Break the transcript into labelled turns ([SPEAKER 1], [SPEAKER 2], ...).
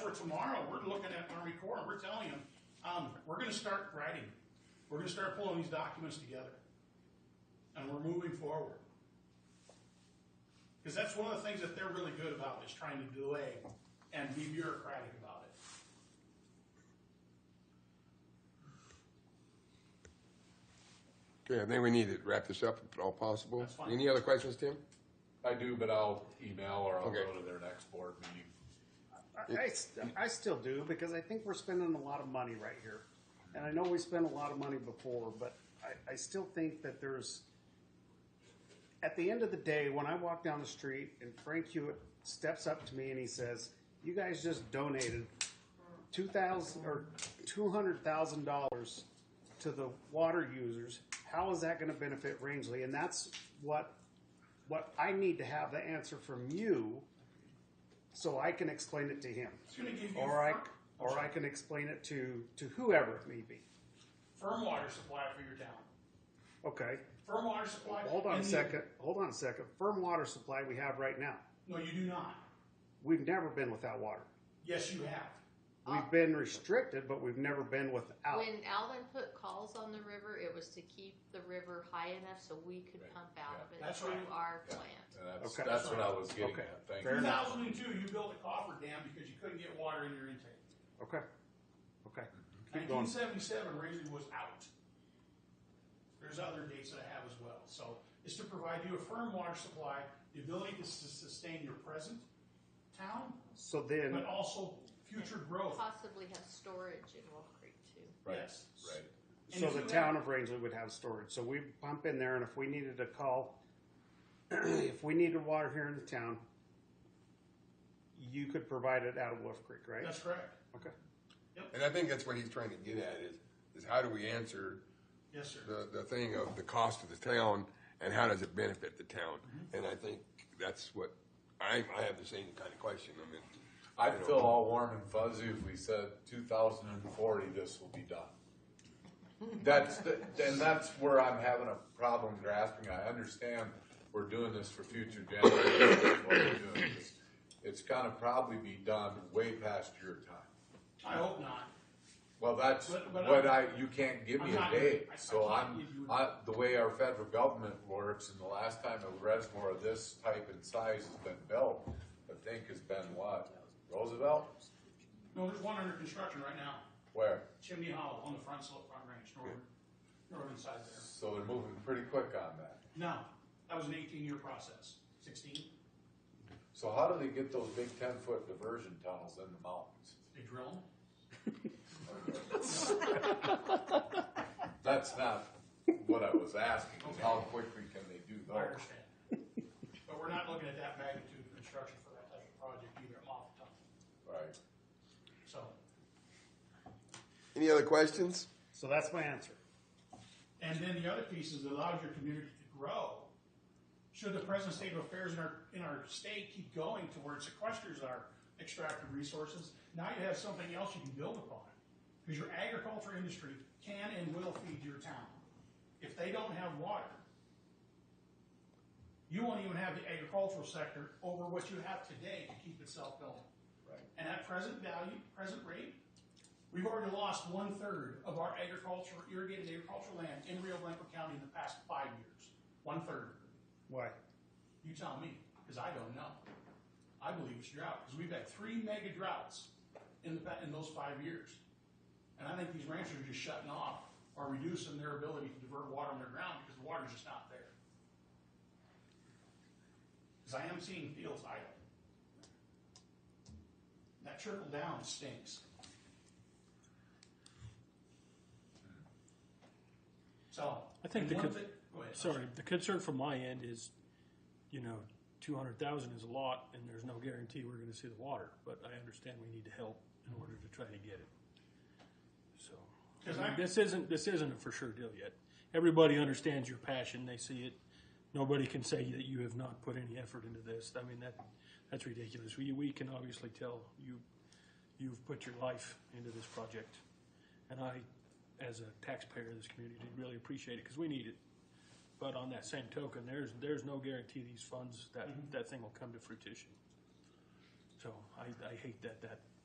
[SPEAKER 1] where tomorrow, we're looking at Army Corps, and we're telling them, um, we're gonna start writing. We're gonna start pulling these documents together. And we're moving forward. Because that's one of the things that they're really good about, is trying to delay and be bureaucratic about it.
[SPEAKER 2] Okay, I think we need to wrap this up if at all possible.
[SPEAKER 1] That's fine.
[SPEAKER 2] Any other questions, Tim?
[SPEAKER 3] I do, but I'll email or I'll
[SPEAKER 2] Okay.
[SPEAKER 3] go to their next board meeting.
[SPEAKER 4] I, I st- I still do because I think we're spending a lot of money right here. And I know we spent a lot of money before, but I, I still think that there's, at the end of the day, when I walk down the street and Frank Hewitt steps up to me and he says, You guys just donated two thousand or two hundred thousand dollars to the water users. How is that going to benefit Rangeley? And that's what what I need to have the answer from you, so I can explain it to him,
[SPEAKER 1] It's gonna give you
[SPEAKER 4] or I
[SPEAKER 1] fir-
[SPEAKER 4] or I can explain it to to whoever it may be.
[SPEAKER 1] firm water supply for your town.
[SPEAKER 4] Okay,
[SPEAKER 1] Firm water supply.
[SPEAKER 4] hold on a
[SPEAKER 1] and you-
[SPEAKER 4] second. Hold on a second. Firm water supply we have right now.
[SPEAKER 1] No, you do not.
[SPEAKER 4] We've never been without water.
[SPEAKER 1] Yes, you have. Ah.
[SPEAKER 4] We've been restricted, but we've never been without.
[SPEAKER 5] When Alvin put calls on the river, it was to keep the river high enough so we could
[SPEAKER 3] Right.
[SPEAKER 5] pump out of
[SPEAKER 1] Yeah.
[SPEAKER 5] it
[SPEAKER 1] That's
[SPEAKER 5] through
[SPEAKER 1] right.
[SPEAKER 5] our
[SPEAKER 3] Yeah.
[SPEAKER 5] plant.
[SPEAKER 3] And that's,
[SPEAKER 4] Okay.
[SPEAKER 3] that's what I was getting
[SPEAKER 4] Okay.
[SPEAKER 3] at. Thank
[SPEAKER 4] Fair
[SPEAKER 3] you.
[SPEAKER 4] enough.
[SPEAKER 1] 2002, you built a coffer dam because you couldn't get water in your intake.
[SPEAKER 4] Okay, okay. Keep going.
[SPEAKER 1] 1977, Raisin was out. There's other dates that I have as well. So it's to provide you a firm water supply, the ability to sus- sustain your present town,
[SPEAKER 4] So then,
[SPEAKER 1] but also future growth.
[SPEAKER 5] Possibly have storage in Wolf Creek too.
[SPEAKER 3] Right.
[SPEAKER 1] Yes.
[SPEAKER 3] Right.
[SPEAKER 1] And
[SPEAKER 4] So
[SPEAKER 1] if
[SPEAKER 4] the
[SPEAKER 1] you
[SPEAKER 4] town
[SPEAKER 1] have-
[SPEAKER 4] of Rangeley would have storage, so we pump in there, and if we needed to call, if we needed water here in the town, you could provide it out of Wolf Creek, right?
[SPEAKER 1] That's correct.
[SPEAKER 4] Okay,
[SPEAKER 2] And I think that's what he's trying to get at is, is how do we answer
[SPEAKER 1] Yes, sir.
[SPEAKER 2] the, the thing of the cost of the town and how does it benefit the town?
[SPEAKER 1] Mm-hmm.
[SPEAKER 2] And I think that's what, I, I have the same kind of question. I mean,
[SPEAKER 3] I'd feel all warm and fuzzy if we said 2040 this will be done. That's the, and that's where I'm having a problem grasping. I understand we're doing this for future generations. what we're doing. It's- It's gonna probably be done way past your time.
[SPEAKER 1] I hope not.
[SPEAKER 3] Well, that's
[SPEAKER 1] But- but
[SPEAKER 3] what I,
[SPEAKER 1] I'm-
[SPEAKER 3] you can't give me
[SPEAKER 1] I'm
[SPEAKER 3] a
[SPEAKER 1] not-
[SPEAKER 3] date,
[SPEAKER 1] I- I
[SPEAKER 3] so
[SPEAKER 1] can't
[SPEAKER 3] I'm,
[SPEAKER 1] give you a-
[SPEAKER 3] I, the way our federal government works, and the last time a reservoir of this type and size has been built, I think has been what, Roosevelt?
[SPEAKER 1] No, there's one under construction right now.
[SPEAKER 3] Where?
[SPEAKER 1] Chimney Hollow on the front slope, front range, northern, northern side there.
[SPEAKER 3] So they're moving pretty quick on that.
[SPEAKER 1] No, that was an 18-year process. 16?
[SPEAKER 3] So how do they get those big ten-foot diversion tunnels in the mountains?
[SPEAKER 1] They drill 'em.
[SPEAKER 3] That's not what I was asking, is how quickly can they do
[SPEAKER 1] I
[SPEAKER 3] those?
[SPEAKER 1] understand. But we're not looking at that magnitude of construction for that type of project either, I'm off the top.
[SPEAKER 3] Right.
[SPEAKER 1] So,
[SPEAKER 2] Any other questions?
[SPEAKER 4] so that's my answer.
[SPEAKER 1] and then the other piece is it allows your community to grow. Should the present state of affairs in our, in our state keep going to where it sequesters our extractive resources, now you have something else you can build upon. Because your agriculture industry can and will feed your town. If they don't have water, you won't even have the agricultural sector over what you have today to keep itself going.
[SPEAKER 3] Right.
[SPEAKER 1] And at present value, present rate, we've already lost one third of our agriculture, irrigated agricultural land in Rio Blanco County in the past five years. One third.
[SPEAKER 4] Why?
[SPEAKER 1] You tell me, because I don't know. I believe it's drought, because we've had three mega droughts in the, pa- in those five years. And I think these ranchers are just shutting off or reducing their ability to divert water underground because the water's just not there. Because I am seeing fields idle. That trickle down stinks. So.
[SPEAKER 6] I think the
[SPEAKER 1] one
[SPEAKER 6] con-
[SPEAKER 1] thing- go ahead.
[SPEAKER 6] Sorry, the concern from my end is, you know, two hundred thousand is a lot, and there's no guarantee we're gonna see the water, but I understand we need to help in order to try to get it. So,
[SPEAKER 1] Because
[SPEAKER 6] I mean,
[SPEAKER 1] I-
[SPEAKER 6] this isn't, this isn't a for sure deal yet. Everybody understands your passion, they see it. Nobody can say that you have not put any effort into this. I mean, that, that's ridiculous. We, we can obviously tell you, you've put your life into this project. And I, as a taxpayer of this community, really appreciate it, because we need it. But on that same token, there's, there's no guarantee these funds, that, that thing will come to fruition. So I, I hate that that